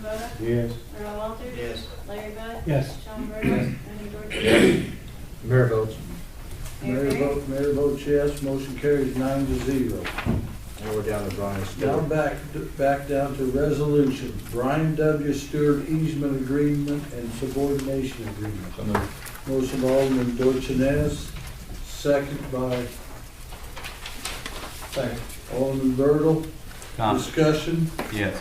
Kubota, Yes. Earl Walters. Yes. Larry Bud. Yes. Sean Burdell. Rodney Dorchenez. Mayor votes. Mayor Mayor Perry. vote, mayor votes yes, motion carries nine to zero. Now we're down to Brian Stewart. Now back, back down to resolution, Brian W. Stewart easement agreement and subordination agreement. So moved. Motion by Alderman Dorchenez, second by Second. Alderman Bertle. Tom, Discussion, yes.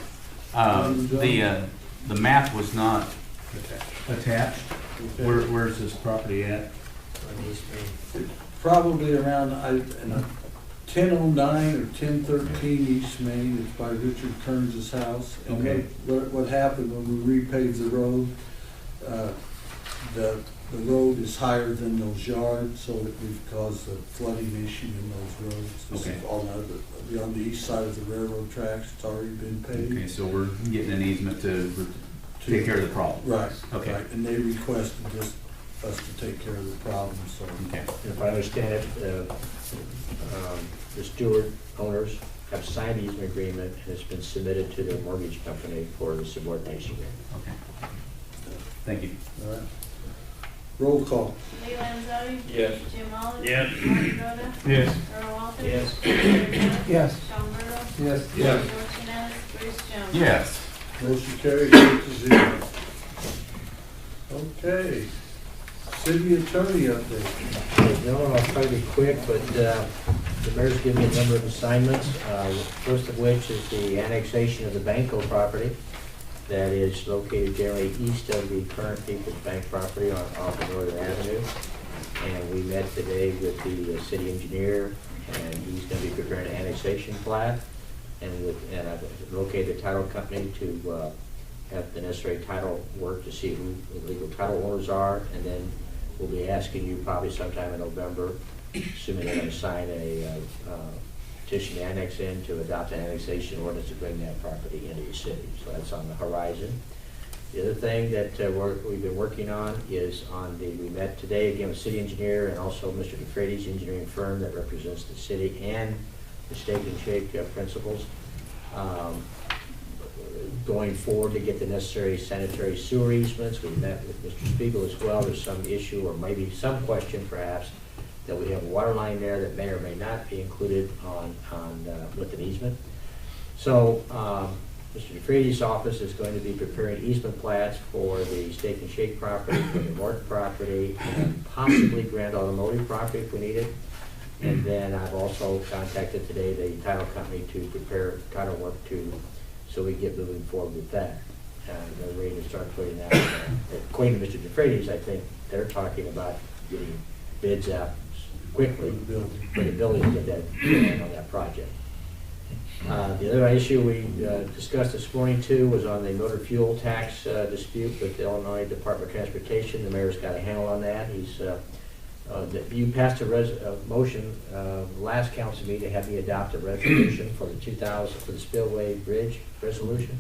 Uh, Um, The, uh, the map was not attached. Okay. Where, where's this property at? probably around ten oh nine or ten thirteen East Main, it's by Richard Kearns' house. And Okay. What, what- what happened when we repaved the road, uh, the, the road is higher than those yards, so it we've caused a flooding issue in those roads. This is Okay. On the, the- on the east side of the railroad tracks, it's already been Okay, paved. so we're getting an easement to to- take care of the problem. Right. Okay. right, And they requested just us to take care of the problem, so. Okay. If I understand it, uh, um, the Stewart owners have signed the easement agreement and it's been submitted to their mortgage company for the subordination agreement. Okay. Thank you. All right. Roll call. Lee Landzadi. Yes. Jim Oliver. Yes. Marty Boda. Yes. Earl Walters. Yes. Larry Bud. Yes. Sean Burdell. Yes. Rodney Dorchenez. Bruce Jones. Yes. Motion carries eight to zero. Okay, city attorney update. No, I'll try to be quick, but uh, the mayor's given me a number of assignments, uh, first of which is the annexation of the Banco property that is located generally east of the current People's Bank property on off of Northern Avenue. And we met today with the uh, city engineer, and he's going to be preparing an annexation plat, and with, and I've located a title company to uh, have the necessary title work to see who the legal title owners are, and then we'll be asking you probably sometime in November, assuming they're gonna sign a uh, uh, petition to annex in to adopt an annexation ordinance to bring that property into the city, so that's on the horizon. The other thing that uh, we're, we've been working on is on the, we met today again with city engineer and also Mr. DeFrades, engineering firm that represents the city and the Steak and Shake uh, principals. Um, going forward to get the necessary sanitary sewer easements. We met with Mr. Spiegel as well. There's some issue or maybe some question perhaps that we have a water line there that may or may not be included on, on, uh, with an easement. So, um, Mr. DeFreeze's office is going to be preparing easement plats for the Steak and Shake property, for the Morton property, and possibly Grand Automotive property if we need it. And then I've also contacted today the title company to prepare title work to, so we get moving forward with that. And they're ready to start putting that, according to Mr. DeFreitas, I think they're talking about getting bids out quickly for the building to get that, going on that project. Uh, The other issue we uh, discussed this morning too was on the motor fuel tax uh, dispute with the Illinois Department of Transportation. The mayor's got a handle on that. He's, uh, uh, that you passed a res, a motion uh, last council meeting to have me adopt a resolution for the 2000, for the spillway bridge resolution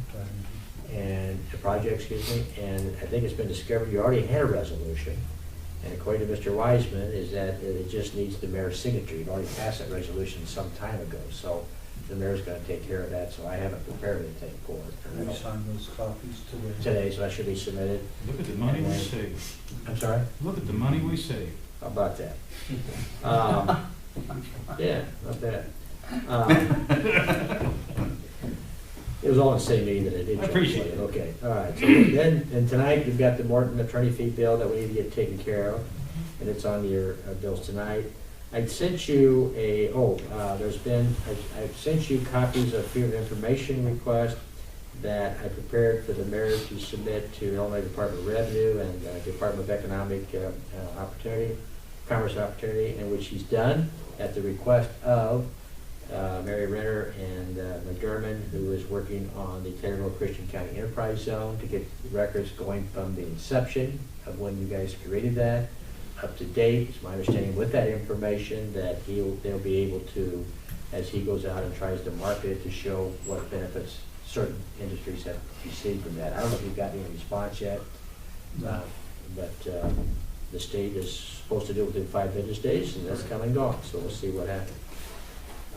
and the project, excuse me, and I think it's been discovered you already had a resolution. And according to Mr. Wiseman, is that it just needs the mayor's signature. You've already passed that resolution some time ago, so the mayor's gonna take care of that, so I haven't prepared anything for Can we it sign those copies today? today, so that should be submitted. Look at the money we save. I'm sorry? Look at the money we save. How about that? Um, Yeah, not bad. Um, It was all in the same meeting that I did. I appreciate it. Okay, all right. So Then, and tonight, we've got the Morton attorney fee bill that we need to get taken care of, and it's on your uh, bills tonight. I sent you a, oh, uh, there's been, I- I've sent you copies of freedom of information request that I prepared for the mayor to submit to Illinois Department of Revenue and uh, Department of Economic uh, uh, Opportunity, Commerce Opportunity, and which he's done at the request of uh, Mary Renner and uh, McDermott, who is working on the Taylorville Christian County Enterprise Zone to get the records going from the inception of when you guys created that up to date. It's my understanding with that information that he'll, they'll be able to, as he goes out and tries to market it, to show what benefits certain industries have received from that. I don't know if you've got any response yet. uh, But uh, the state is supposed to do it within five business days, and that's come and gone, so we'll see what happens.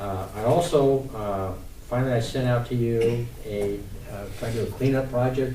Uh, I also, uh, finally, I sent out to you a, uh, trying to do a cleanup project